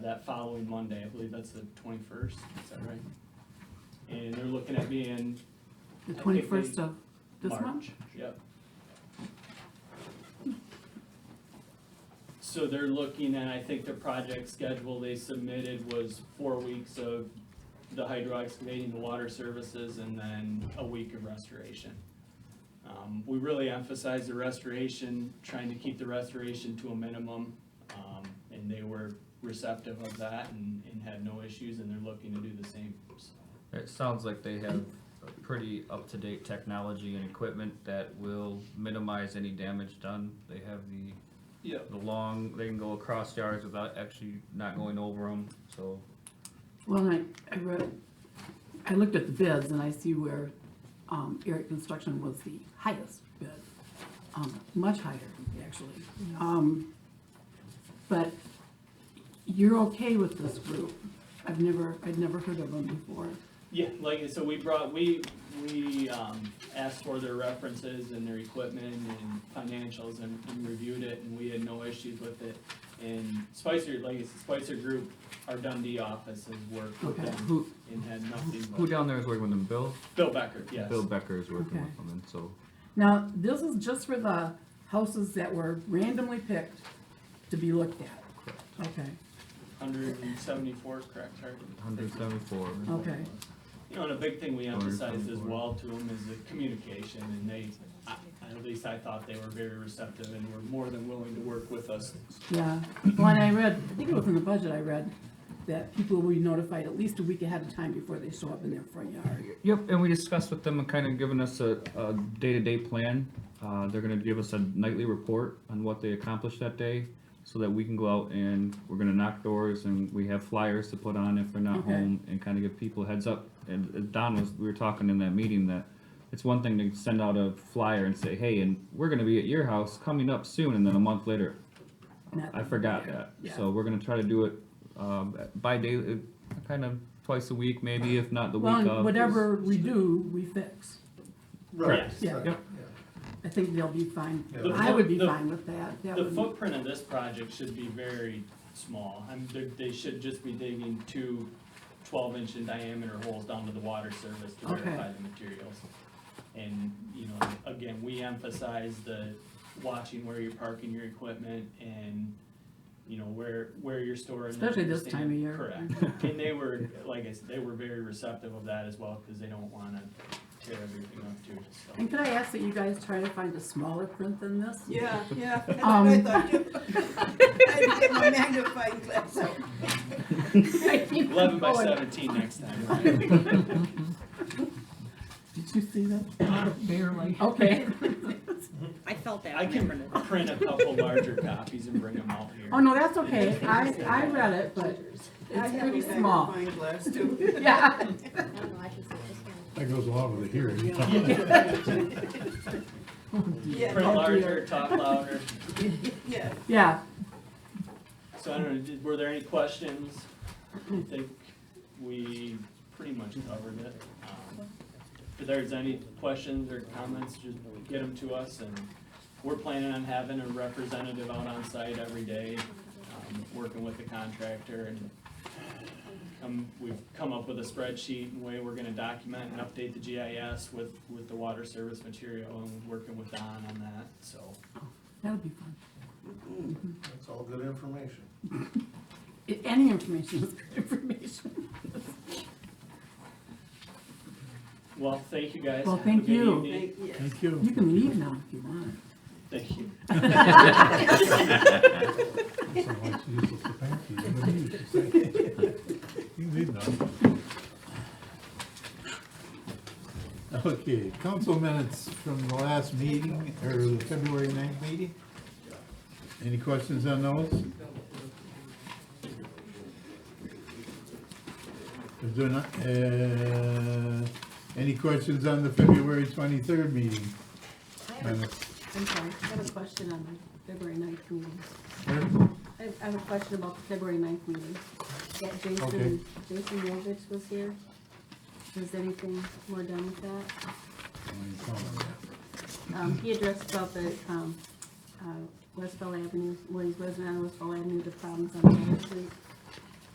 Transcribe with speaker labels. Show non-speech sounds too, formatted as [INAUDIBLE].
Speaker 1: that following Monday, I believe that's the twenty-first, is that right? And they're looking at me in
Speaker 2: The
Speaker 1: I think
Speaker 2: twenty-first
Speaker 1: they-
Speaker 2: of this
Speaker 1: March.
Speaker 2: month?
Speaker 1: Yep. So they're looking at, I think the project schedule they submitted was four weeks of the hydro excavating, the water services, and then a week of restoration. Um, we really emphasized the restoration, trying to keep the restoration to a minimum, um, and they were receptive of that and, and had no issues, and they're looking to do the same, so.
Speaker 3: It sounds like they have a pretty up-to-date technology and equipment that will minimize any damage done. They have the,
Speaker 1: Yep.
Speaker 3: the long, they can go across yards without actually not going over them, so.
Speaker 2: Well, I, I read, I looked at the bids and I see where, um, Eric Construction was the highest bid. Um, much higher, actually. Um, but you're okay with this group? I've never, I'd never heard of them before.
Speaker 1: Yeah, like, so we brought, we, we, um, asked for their references and their equipment and financials and and reviewed it, and we had no issues with it. And Spicer, like, it's Spicer Group, our Dundee office has worked with
Speaker 2: Okay.
Speaker 1: them
Speaker 3: Who,
Speaker 1: and had nothing
Speaker 3: who
Speaker 1: but,
Speaker 3: down there is working with them, Bill?
Speaker 1: Bill Becker, yes.
Speaker 3: Bill Becker is working
Speaker 2: Okay.
Speaker 3: with them, and so,
Speaker 2: Now, this is just for the houses that were randomly picked to be looked at. Okay,
Speaker 1: Hundred and seventy-four, correct, Hardy?
Speaker 3: hundred seventy-four.
Speaker 2: okay.
Speaker 1: You know, and a big thing we
Speaker 3: Order
Speaker 1: emphasized as
Speaker 3: 24.
Speaker 1: well to them is the communication, and they, I- at least I thought they were very receptive and were more than willing to work with us.
Speaker 2: Yeah, well, and I read, I think it was in the budget I read, that people will be notified at least a week ahead of time before they show up in their front yard.
Speaker 3: Yep, and we discussed with them and kind of given us a, a day-to-day plan. Uh, they're gonna give us a nightly report on what they accomplished that day, so that we can go out and we're gonna knock doors and we have flyers to put on if they're not
Speaker 2: Okay.
Speaker 3: home and kind of give people a heads up. And uh, Don was, we were talking in that meeting that it's one thing to send out a flyer and say, hey, and we're gonna be at your house coming up soon, and then a month later,
Speaker 2: Not-
Speaker 3: I forgot that.
Speaker 2: Yeah.
Speaker 3: So we're gonna try to do it, um, by day, uh, kind of twice a week, maybe, if not the week
Speaker 2: Well,
Speaker 3: of.
Speaker 2: and whatever we do, we fix.
Speaker 3: Correct.
Speaker 1: Yes.
Speaker 2: Yeah,
Speaker 3: Yep.
Speaker 2: I think they'll be fine.
Speaker 1: Yeah.
Speaker 2: I would be
Speaker 1: The-
Speaker 2: fine with that. That
Speaker 1: The
Speaker 2: would-
Speaker 1: footprint of this project should be very small. I'm, they, they should just be digging two 12 inch in diameter holes down to the water surface to
Speaker 2: Okay.
Speaker 1: verify the materials. And, you know, again, we emphasize the watching where you're parking your equipment and, you know, where, where you're storing. it,
Speaker 2: Especially this
Speaker 1: understand-
Speaker 2: time of year. [LAUGHS]
Speaker 1: Correct. And they were, like I said, they were very receptive of that as well, cause they don't wanna tear everything up too, so.
Speaker 2: And could I ask that you guys try to find a smaller print than this? [LAUGHS]
Speaker 4: Yeah, yeah, [LAUGHS] that's what I
Speaker 2: Um,
Speaker 4: thought too. I had to get my magnifying glass out.
Speaker 1: Eleven by
Speaker 2: Oh, I-
Speaker 1: seventeen next time, [LAUGHS]
Speaker 2: [LAUGHS]
Speaker 1: right?
Speaker 2: Did you see that? Barely.
Speaker 1: [LAUGHS]
Speaker 2: Okay.
Speaker 5: I felt that.
Speaker 1: I
Speaker 5: when
Speaker 1: can
Speaker 5: read it.
Speaker 1: print a couple larger copies and bring them out here.
Speaker 2: Oh, no, that's okay. I, I read it, but
Speaker 4: I
Speaker 2: it's
Speaker 4: have
Speaker 2: pretty
Speaker 4: a
Speaker 2: small.
Speaker 4: magnifying glass too.
Speaker 2: Yeah.
Speaker 6: I don't know, I can see it just kind of.
Speaker 7: That goes along with the hearing.
Speaker 4: Yeah,
Speaker 1: Print
Speaker 2: Oh,
Speaker 1: larger,
Speaker 2: dear.
Speaker 1: talk louder.
Speaker 4: yeah.
Speaker 2: Yeah,
Speaker 1: So I don't know, did- were there any questions? I think we pretty much covered it. Um, If there's any questions or comments, just get them to us and we're planning on having a representative out on site every day, um, working with the contractor and come, we've come up with a spreadsheet and way we're gonna document and update the GIS with, with the water service material and working with Don on that, so.
Speaker 2: that would be fun.
Speaker 7: That's all good information.
Speaker 2: I- Any information is good
Speaker 1: [LAUGHS]
Speaker 2: information.
Speaker 1: Well, thank you guys.
Speaker 2: Well,
Speaker 1: Have a
Speaker 2: thank
Speaker 1: good
Speaker 2: you.
Speaker 1: evening.
Speaker 4: Thank- yeah.
Speaker 7: Thank you.
Speaker 2: You can leave now if you want.
Speaker 1: Thank you.
Speaker 7: Someone likes to use it for thank you. You can use it for thank You You need none. Okay, council minutes from the last meeting, or the February 9th meeting. Any questions on those? Is there not, uh, any questions on the February 23rd meeting?
Speaker 6: I have a-
Speaker 7: Minutes?
Speaker 6: I'm sorry, I have a question on the February ninth meeting.
Speaker 7: Sure.
Speaker 6: I have, I have a question about the February ninth meeting. That
Speaker 7: Okay.
Speaker 6: Jason, Jason Yovich was here. Was anything more done with that? Um, he addressed about the, um, uh, Westfall Avenue, well, he's resident on Westfall Avenue, the problems on Main Street.